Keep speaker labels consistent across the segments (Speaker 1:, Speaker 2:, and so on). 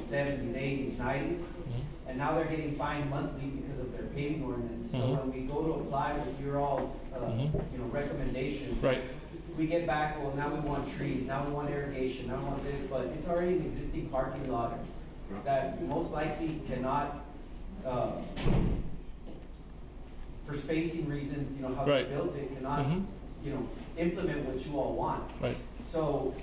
Speaker 1: seventies, eighties, nineties,
Speaker 2: Mhm.
Speaker 1: and now they're getting fined monthly because of their paving ordinance. So
Speaker 2: Mhm.
Speaker 1: when we go to apply with your all's, uh,
Speaker 2: Mhm.
Speaker 1: you know, recommendations,
Speaker 2: Right,
Speaker 1: we get back, well, now we want trees, now we want irrigation, now we want this, but it's already an existing parking lot that most likely cannot, uh, for spacing reasons, you know, how they
Speaker 2: Right.
Speaker 1: built it, cannot,
Speaker 2: Mhm.
Speaker 1: you know, implement what you all want.
Speaker 2: right,
Speaker 1: So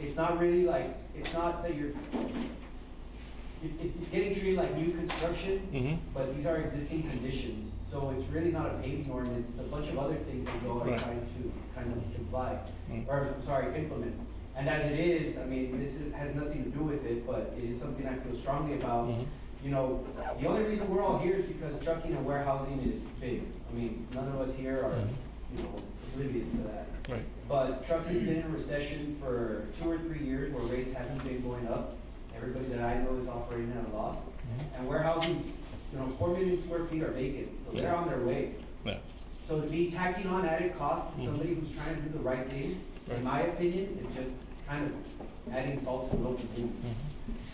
Speaker 1: it's not really like, it's not that you're, it- it's getting treated like new construction,
Speaker 2: mhm,
Speaker 1: but these are existing conditions. So it's really not a paving ordinance, it's a bunch of other things that go and
Speaker 2: Right.
Speaker 1: trying to kind of imply,
Speaker 2: Mm.
Speaker 1: or, I'm sorry, implement. And as it is, I mean, this is- has nothing to do with it, but it is something I feel strongly about.
Speaker 2: mhm,
Speaker 1: You know, the only reason we're all here is because trucking and warehousing is big. I mean, none of us here are,
Speaker 2: Mhm.
Speaker 1: you know, oblivious to that.
Speaker 2: Mm-hmm. right,
Speaker 1: But trucking's been in a recession for two or three years where rates haven't been going up. Everybody that I know is operating at a loss.
Speaker 2: mhm,
Speaker 1: And warehousing's, you know, four million square feet are vacant, so they're on their way.
Speaker 2: yeah, Mm.
Speaker 1: So to be tacking on added cost to somebody who's trying to do the right thing,
Speaker 2: Right.
Speaker 1: in my opinion, is just kind of adding salt to the local wound.
Speaker 2: mhm,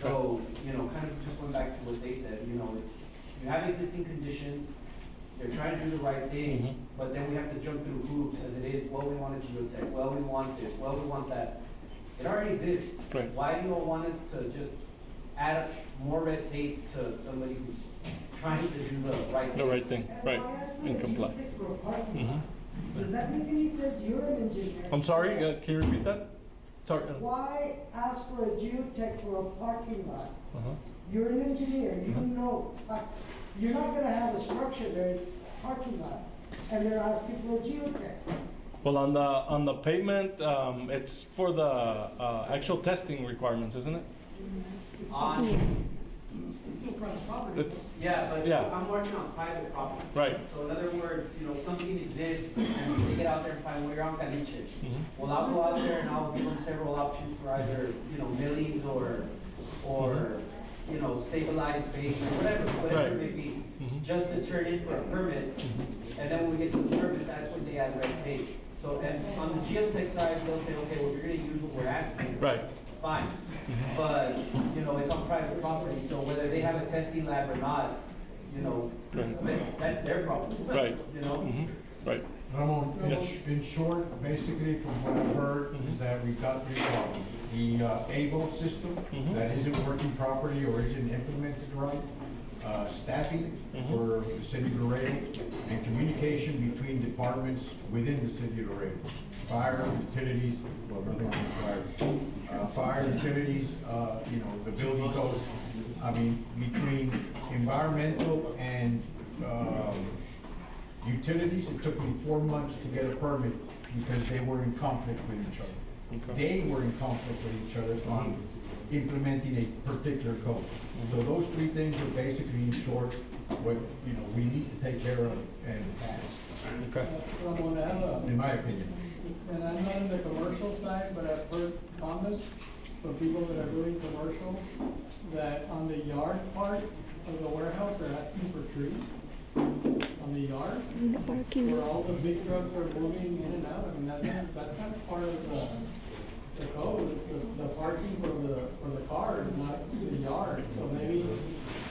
Speaker 1: So, you know, kind of just going back to what they said, you know, it's, you have existing conditions, they're trying to do the right
Speaker 2: Mhm.
Speaker 1: thing, but then we have to jump through hoops as it is, well, we want a geotech, well, we want this, well, we want that. It already exists.
Speaker 2: Right.
Speaker 1: Why do you all want us to just add up more red tape to somebody who's trying to do the right
Speaker 2: the
Speaker 1: thing?
Speaker 2: right thing, right, and comply. Mhm.
Speaker 3: Does that make any sense? You're an engineer.
Speaker 2: I'm sorry, uh, can you repeat that? Sorry. uh,
Speaker 3: Why ask for a geotech for a parking lot?
Speaker 2: uh-huh.
Speaker 3: You're an engineer, you
Speaker 2: Mhm.
Speaker 3: know, uh, you're not gonna have a structure there, it's parking lot, and they're asking for a geotech.
Speaker 2: Well, on the, on the pavement, um, it's for the, uh, actual testing requirements, isn't it?
Speaker 1: On-
Speaker 3: Still private property.
Speaker 2: It's,
Speaker 1: yeah, but
Speaker 2: Yeah.
Speaker 1: I'm working on private property.
Speaker 2: right,
Speaker 1: So in other words, you know, something exists and they get out there and find, well, you're on Caliche.
Speaker 2: mhm,
Speaker 1: Well, I'll go out there and I'll give them several options for either, you know, millings or, or,
Speaker 2: Mm-hmm.
Speaker 1: you know, stabilized base or whatever, whatever it may be,
Speaker 2: mhm,
Speaker 1: just to turn in for a permit. And then when we get to the permit, that's when they add red tape. So, and on the geotech side, they'll say, okay, well, you're gonna use what we're asking.
Speaker 2: right,
Speaker 1: Fine, but, you know, it's on private property, so whether they have a testing lab or not, you know,
Speaker 2: right,
Speaker 1: that- that's their problem.
Speaker 2: Right.
Speaker 1: You know?
Speaker 2: mhm, right,
Speaker 4: Ramon, in-
Speaker 2: Yes.
Speaker 4: in short, basically from what I've heard,
Speaker 2: Mhm.
Speaker 4: is that we've got three problems. The uh, A-Boat system
Speaker 2: Mhm.
Speaker 4: that isn't working properly or isn't implemented right, uh, staffing
Speaker 2: Mhm.
Speaker 4: for the city of Laredo, and communication between departments within the city of Laredo. Fire, utilities, well, nothing on fire. Uh, Fire, utilities, uh, you know, the building code. I mean, between environmental and um, Utilities, it took me four months to get a permit because they were in conflict with each other. They were in conflict with each other on implementing a particular code. So those three things are basically in short what, you know, we need to take care of and fast,
Speaker 2: okay.
Speaker 5: Ramon, I have a,
Speaker 4: in my opinion.
Speaker 5: and I'm not in the commercial side, but I've heard comments from people that are doing commercial, that on the yard part of the warehouse, they're asking for trees on the yard,
Speaker 6: In the parking
Speaker 5: where
Speaker 6: lot.
Speaker 5: all the big trucks are moving in and out, I mean, that's not, that's not part of the, the code, It's the, the parking for the, for the car, is not the yard, so maybe,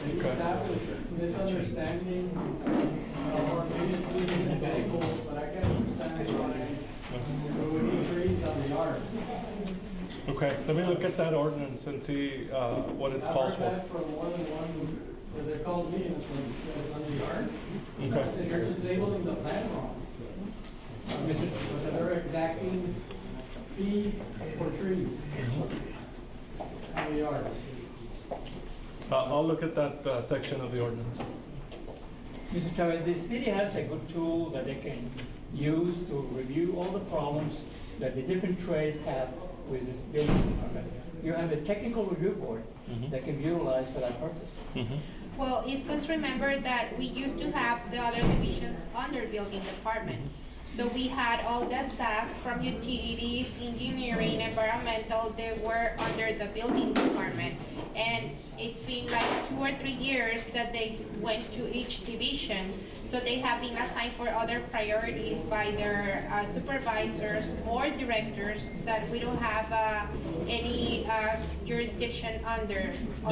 Speaker 5: maybe that was misunderstanding, uh, or maybe it's being mistaken, but I can understand why there would be trees on the yard.
Speaker 2: Okay, let me look at that ordinance and see, uh, what it
Speaker 5: I've
Speaker 2: calls
Speaker 5: heard
Speaker 2: for.
Speaker 5: that from more than one, where they called me, and it's like, it's on the yard,
Speaker 2: Okay,
Speaker 5: They are just labeling the plan wrong. But they're exacting fees for trees
Speaker 2: Mm-hmm.
Speaker 5: on the yard.
Speaker 2: uh, I'll look at that, uh, section of the ordinance.
Speaker 7: Mr. Chavez, the city has a good tool that they can use to review all the problems that the different trades have with this building department. You have a technical review board
Speaker 2: Mhm,
Speaker 7: that can be utilized for that purpose.
Speaker 2: mhm,
Speaker 8: Well, it's because remember that we used to have the other divisions under building department. So we had all the staff from utilities, engineering, environmental, they were under the building department. And it's been like two or three years that they went to each division. So they have been assigned for other priorities by their uh, supervisors or directors that we don't have uh, any uh, jurisdiction under.